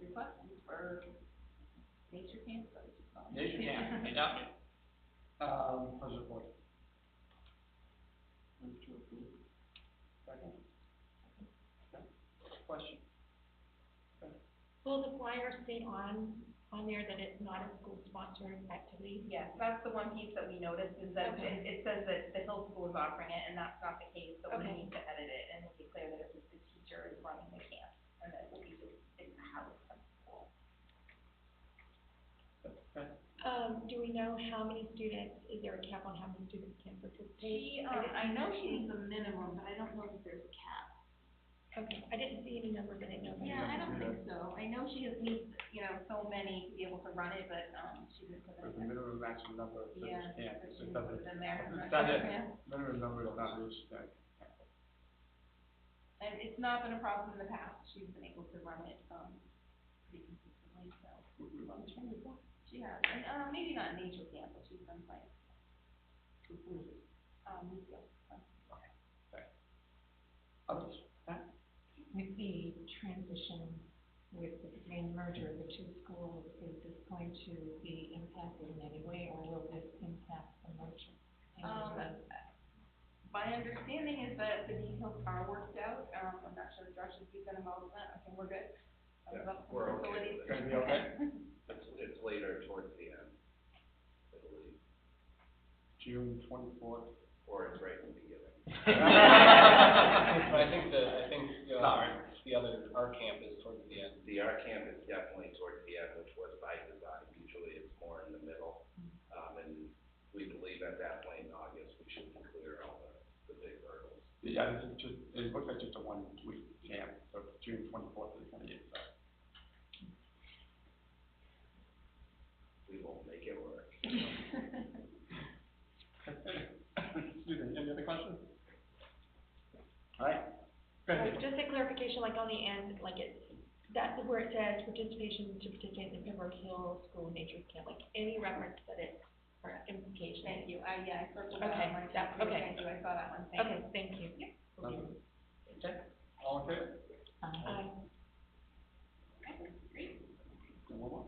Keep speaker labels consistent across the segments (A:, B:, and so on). A: requesting for nature camp, what is it called?
B: Nature camp, yeah. Um, how's it going? Move to approve. Second. Okay. Question?
C: Will the flyer stay on, on there that it's not a school sponsored activity?
A: Yes, that's the one piece that we noticed is that it, it says that the Hill School is offering it and that's not the case, so we
C: Okay.
A: need to edit it and make it clear that it's the teacher is running the camp and that it will be just in the house of school.
B: Okay.
C: Um, do we know how many students, is there a cap on how many students can participate?
A: She, um, I know she needs a minimum, but I don't know if there's cap.
C: Okay, I didn't see any numbers, I didn't know. if I-
A: Yeah, I don't think so. I know she has needs, you know, so many to be able to run it, but, um, she didn't put
B: There's
A: it
B: a
A: in.
B: minimum maximum number of
A: Yeah,
B: students, yeah,
A: but
B: it's
A: she didn't
B: a
A: put
B: double,
A: it in there.
B: It's not it.
A: Yeah.
B: minimum number of not reached, that.
A: And it's not been a problem in the past. She's been able to run it, um, pretty consistently, so. She has, and, uh, maybe not in nature camp, but she's been playing. Um, we feel, uh,
B: Others?
D: With the transition, with the planned merger of the two schools, is this going to be impacted in any way, or will this impact the merger? in any
A: Um,
D: way?
A: My understanding is that the details are worked out. Um, I'm not sure if Josh is even involved in that. Okay, we're good. I was
E: Yeah,
A: up for
E: we're okay
A: facilities.
E: with
B: it. Gonna be okay?
E: It's, it's later towards the end, I believe,
B: June twenty-fourth.
E: or it's right in the beginning.
F: But I think the, I think, uh,
E: Sorry.
F: the other, our camp is towards the end.
E: The R camp is definitely towards the end, which was by design, usually it's more in the middle. Um, and we believe at that point in August, we should be clear all the, the big hurdles.
B: Yeah, this is just, it looks like just a one-week camp, so it's June twenty-fourth to the twenty-eighth, so.
E: We will make it work.
B: Excuse me, any other questions? All right. Go
C: Uh,
B: ahead.
C: Just a clarification, like on the end, like it's, that's where it says participation to participate in the Pembroke Hill School Nature Camp, like any reference that it, or implication.
A: Thank you. I, yeah, I circled that
C: Okay,
A: one. too.
C: that- okay.
A: Thank you. I saw that one. Thank you.
C: Okay, thank you.
B: Nothing? Okay, all in favor?
D: Um,
C: Um,
B: And one more?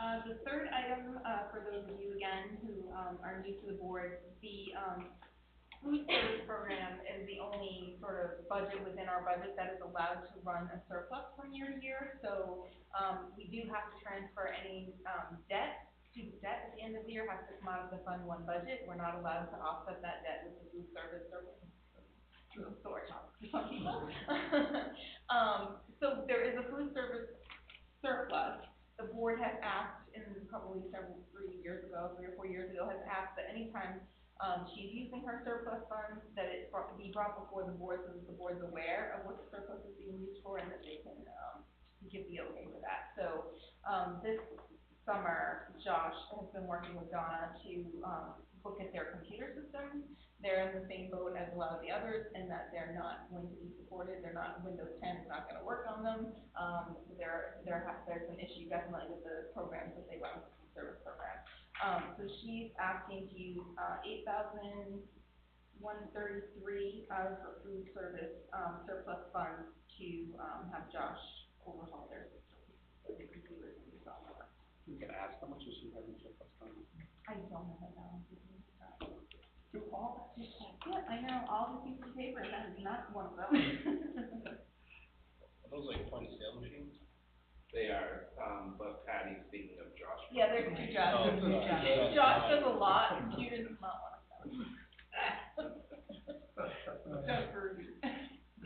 A: Uh, the third item, uh, for those of you again who, um, are new to the board, the, um, food service program is the only sort of budget within our budget that is allowed to run a surplus from year to year. So, um, we do have to transfer any, um, debt, student debt at the end of the year has to come out of the Fund One budget. We're not allowed to offset that debt with the food service surplus. Sorry, some people. Um, so there is a food service surplus the board has asked, in probably several, three years ago, three or four years ago, has asked that anytime, um, she's using her surplus funds, that it bro- be brought before the board, so that the board's aware of what the surplus is being used for, and that they can, um, give the okay for that. So, um, this summer, Josh has been working with Donna to, um, look at their computer systems. They're in the same boat as a lot of the others, and that they're not going to be supported, they're not, Windows ten is not gonna work on them. Um, there, there ha there's an issue definitely with the programs that they run, the service program. Um, so she's asking to use, uh, eight thousand one thirty-three out of her food service, um, surplus funds to, um, have Josh overhaul their system. So they can do it themselves.
B: You can ask how much is she having for first time?
A: I don't know that balance is in stock. Do all, yeah, I know, all the pieces of paper, that is not one of them.
F: Are those like point of sale machines?
E: They are, um, but Patty, speaking of Josh.
A: Yeah, there's two jobs.
F: Oh, yeah.
A: Josh does a lot, computers is not one of them. Don't hurt me.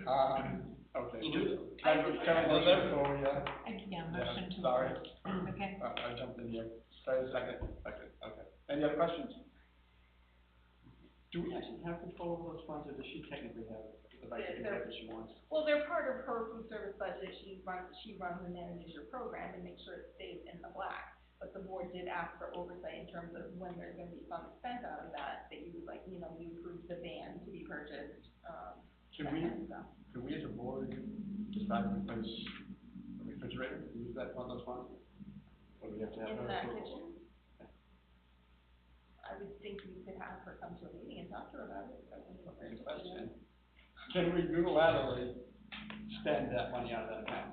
B: Um, okay.
F: You do them.
B: Can I, can I do that for you?
D: I- Yeah, motion to.
B: Sorry,
D: Okay,
B: I, I jumped in here. Sorry, second, second, okay. Any other questions? Do we actually have control over those funds, or does she technically have the right to do whatever she wants?
A: Well, they're part of her food service budget, she runs, she runs and manages your program and makes sure it stays in the black. But the board did ask for oversight in terms of when there's gonna be funds spent out of that, that you would like, you know, you approved the van to be purchased, um, that
B: Can we,
A: kind of stuff.
B: can we as a board decide to replace the refrigerator, to use that, one of those funds? Or do we have to have?
A: In
B: her
A: that
B: approval?
A: kitchen? I would think you could have her come to a meeting and talk to her about it. I think it's
B: Okay,
A: a
B: question. Can we unilaterally spend that money out of that account?